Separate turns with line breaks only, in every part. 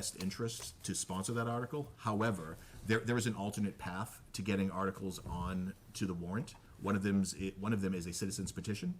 best interest to sponsor that article. However, there, there is an alternate path to getting articles on to the warrant. One of them's, i- one of them is a citizen's petition.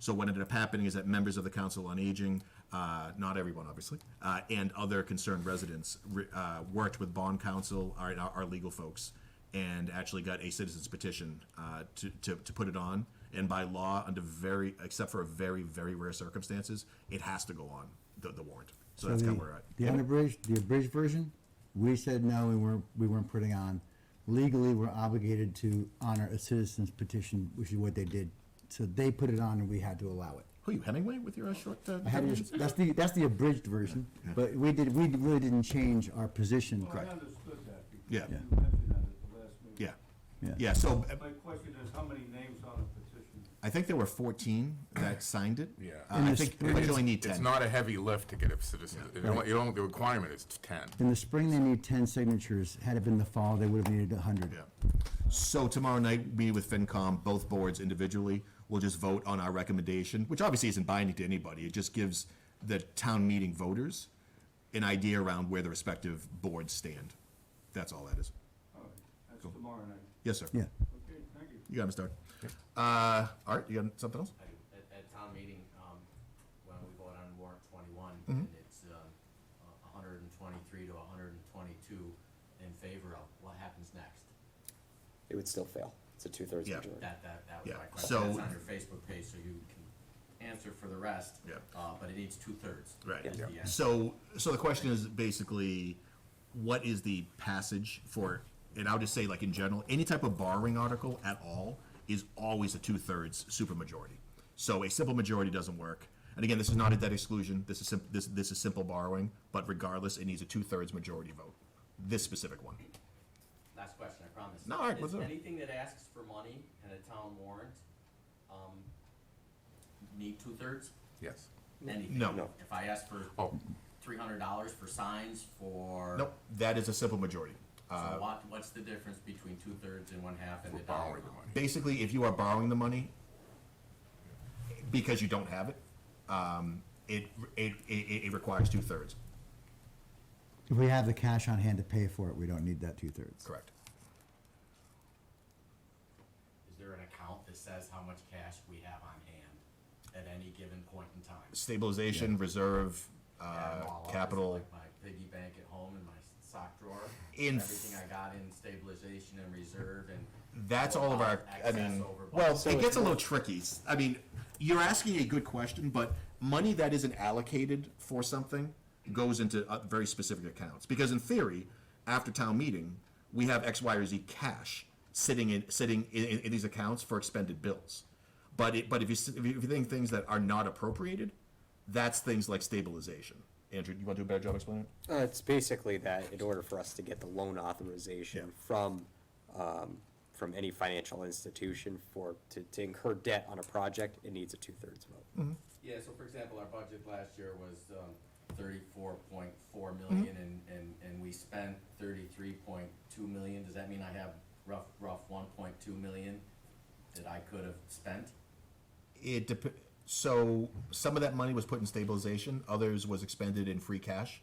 So what ended up happening is that members of the Council on Aging, uh, not everyone obviously, uh, and other concerned residents re- uh, worked with bond counsel, our, our our legal folks, and actually got a citizen's petition uh, to, to, to put it on. And by law, under very, except for very, very rare circumstances, it has to go on the, the warrant. So that's
the-
kind of where we're at.
The unabridged, the abridged version, we said no, we weren't, we weren't putting on. Legally, we're obligated to honor a citizen's petition, which is what they did. So they put it on and we had to allow it.
Who are you, Hemingway, with your uh, short? Uh,
I had to- that's the, that's the abridged version, but we did, we really didn't change our position.
Correct.
I understood that. because
Yeah.
You mentioned that at the last meeting.
yeah. Yeah. So uh,
My question is, how many names on a petition?
I think there were 14 that signed it.
Yeah.
Uh,
And
I
the
think
spring-
we only need 10.
It's not a heavy lift to get a citizen, you only- you only- the requirement is 10.
In the spring, they need ten signatures. Had it been the fall, they would have needed a hundred.
Yeah. So tomorrow night, we with FinCom, both boards individually, will just vote on our recommendation, which obviously isn't binding to anybody. It just gives the town meeting voters an idea around where the respective boards stand. That's all that is.
All right, that's tomorrow night.
Yes, sir.
Yeah.
Okay, thank you.
You got Mr. Art. Uh, Art, you got something else?
I- at, at town meeting, um, when we vote on warrant twenty-one,
Mm-hmm.
and it's, um, a hundred and twenty-three to a hundred and twenty-two in favor of, what happens next?
it would still fail. It's a two-thirds
Yeah.
majority.
That, that, that was
Yeah,
my question,
so-
that's on your Facebook page, so you can answer for the rest.
Yeah.
Uh, but it needs two-thirds.
Right.
at the end.
So, so the question is basically, what is the passage for, and I'll just say like in general, any type of borrowing article at all is always a two-thirds supermajority. So a simple majority doesn't work. And again, this is not a debt exclusion, this is, sim- this, this is simple borrowing, but regardless, it needs a two-thirds majority vote, this specific one.
Last question, I promise.
No, all right,
Is
what's up?
Anything that asks for money in a town warrant, um, need two-thirds?
Yes.
Anything?
No.
No.
If I ask for
Oh,
three hundred dollars for signs, for.
Nope, that is a simple majority.
So
Uh,
what, what's the difference between two-thirds and one-half and
we're
the dollar?
borrowing the money.
basically, if you are borrowing the money because you don't have it, um, it, it, it, it requires two thirds.
If we have the cash on hand to pay for it, we don't need that two-thirds.
Correct.
Is there an account that says how much cash we have on hand at any given point in time?
Stabilization, reserve,
Add 'em
uh,
all up, is it
capital.
Like my piggy bank at home and my sock drawer?
In-
Everything I got in stabilization and reserve and.
That's all of our. I
Excess
mean,
over budget.
well, it gets a little tricky. S- I mean, you're asking a good question, but money that isn't allocated for something goes into uh, very specific accounts. Because in theory, after town meeting, we have X, Y, or Z cash sitting in sitting in, in, in these accounts for expended bills. But it, but if you s- if you if you think things that are not appropriated, that's things like stabilization. Andrew, you want to do a better job explaining it?
Uh, it's basically that in order for us to get the loan authorization from, um, from any financial institution for, to, to incur debt on a project, it needs a two-thirds vote.
Yeah, so for example, our budget last year was um, thirty-four point four
Mm-hmm.
million and, and, and we spent thirty-three point two million. Does that mean I have rough, rough one point two million that I could have spent?
It dep- so some of that money was put in stabilization, others was expended in free cash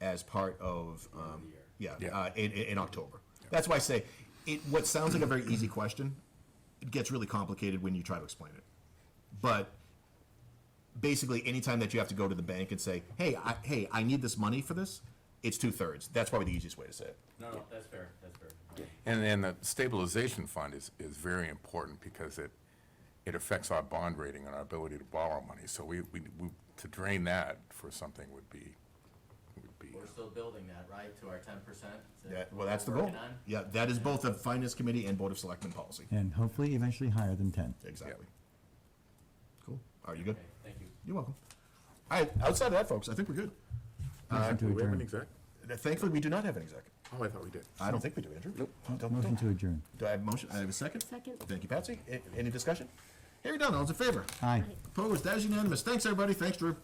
as part of, um, yeah,
Yeah.
uh, in, in in October. That's why I say, it, what sounds like a very easy question, it gets really complicated when you try to explain it. But basically, anytime that you have to go to the bank and say, hey, I, hey, I need this money for this, it's two thirds. That's probably the easiest way to say it.
No, no, that's fair, that's fair.
And then the stabilization fund is, is very important because it, it affects our bond rating and our ability to borrow money. So we, we, we- to drain that for something would be, would be,
We're still building that, right, to our ten percent?
Yeah, well, that's the goal. Yeah, that is both the finance committee and board of selectmen policy.
And hopefully eventually higher than ten.
Exactly. Cool. Are you good?
Okay, thank you.
You're welcome. All right, outside of that, folks, I think we're good.
Motion
Uh, Do
to
we have an
adjourn.
exec?
Thankfully, we do not have an exec.
Oh, I thought we did.
I don't think we do, Andrew. Don't-
Motion
don't-
to adjourn.
Do I have a motion? I have a second?
Second.
Thank you, Patsy. A- Any discussion? Hearing none, all's in favor?
Aye.
Opposed, that is unanimous. Thanks, everybody. Thanks, Drew.